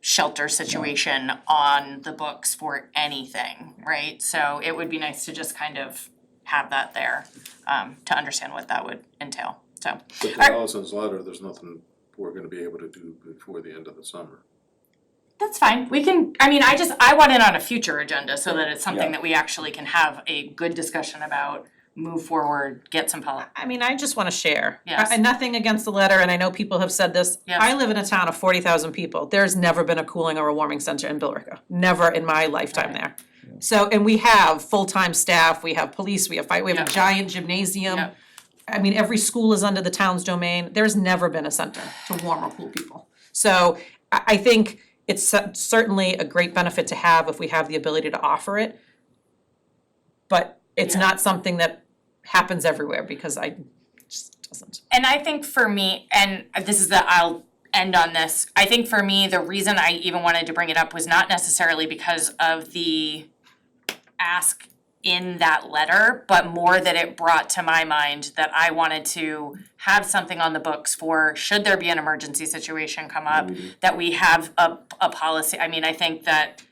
shelter situation on the books for anything, right? So it would be nice to just kind of have that there, um, to understand what that would entail, so. But Alright. to Allison's letter, there's nothing we're gonna be able to do before the end of the summer. That's fine, we can, I mean, I just, I want it on a future agenda so that it's something Yeah. that we actually can have a good discussion about, move forward, get some pol- I mean, I just wanna share. Yes. I- And nothing against the letter, and I know people have said this. Yes. I live in a town of forty thousand people. There's never been a cooling or a warming center in Billerica, never in my lifetime there. So, and we have full-time staff, we have police, we have fire, we have a Yeah. giant gymnasium. Yeah. I mean, every school is under the town's domain. There's never been a center to warm or cool people. So I, I think it's cer- certainly a great benefit to have if we have the ability to offer it. But it's Yeah. not something that happens everywhere because I just doesn't. And I think for me, and this is the, I'll end on this, I think for me, the reason I even wanted to bring it up was not necessarily because of the ask in that letter, but more that it brought to my mind that I wanted to have something on the books for, should there be an emergency situation come up, that we have a, a policy, I mean, I think that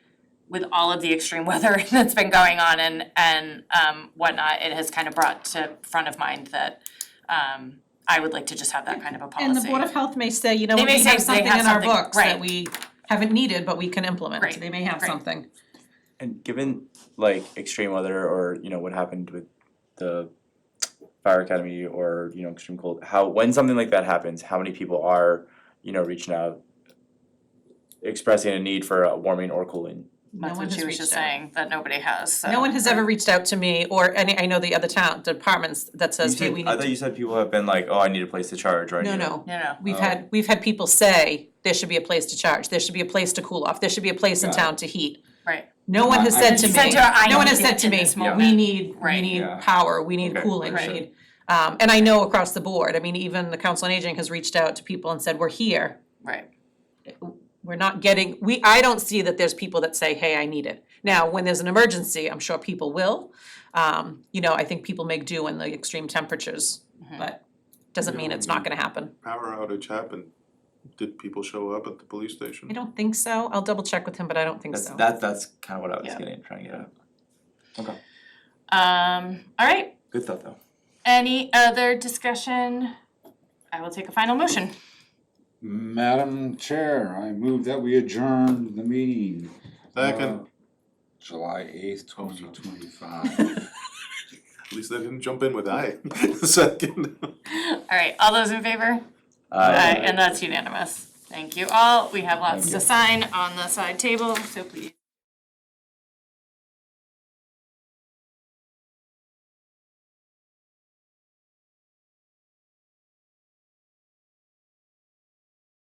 with all of the extreme weather that's been going on and, and, um, whatnot, it has kind of brought to front of mind that, um, I would like to just have that kind of a policy. And the Board of Health may say, you know, They we may say have they something have in our something, books that right. we haven't needed, but we can implement. Right, They may have right. something. And given like extreme weather or, you know, what happened with the fire academy or, you know, extreme cold, how, when something like that happens, how many people are, you know, reaching out, expressing a need for uh, warming or cooling? No That's one what she has was reached just out. saying, that nobody has, so. No one has ever reached out to me or any, I know the other town departments that says, hey, we need I thought to. you said people have been like, oh, I need a place to charge or I need. No, a-" No, no, no, we've Oh. had, we've had people say, there should be a place to charge, there should be a place to cool off, there should be a place in Got it. town to heat. right, No one has I- said to You me, said to her, "I no one need has it said to in me, this moment." we need, we Right. need Yeah. power, we need Okay, cooling, we sure. need. Um, and I know across the board, I mean, even the Council on Aging has reached out to people and said, we're here, right, we're not getting, we, I don't see that there's people that say, hey, I need it. Now, when there's an emergency, I'm sure people will. Um, you know, I think people make do in the extreme temperatures, but doesn't mean it's not gonna happen. Power outage happened, did people show up at the police station? I don't think so. I'll double check with him, but I don't think That's, so. that's, that's kind of what I was Yeah. getting, trying to get at. Okay, um, all right, good thought though. any other discussion? I will take a final motion. Madam Chair, I move that we adjourn the meeting. Second, of July eighth, twenty twenty-five. at least I didn't jump in with I, second. All right, all those in favor? Uh, Aye, and that's unanimous. Thank you all. We have lots to sign on the side table, so please.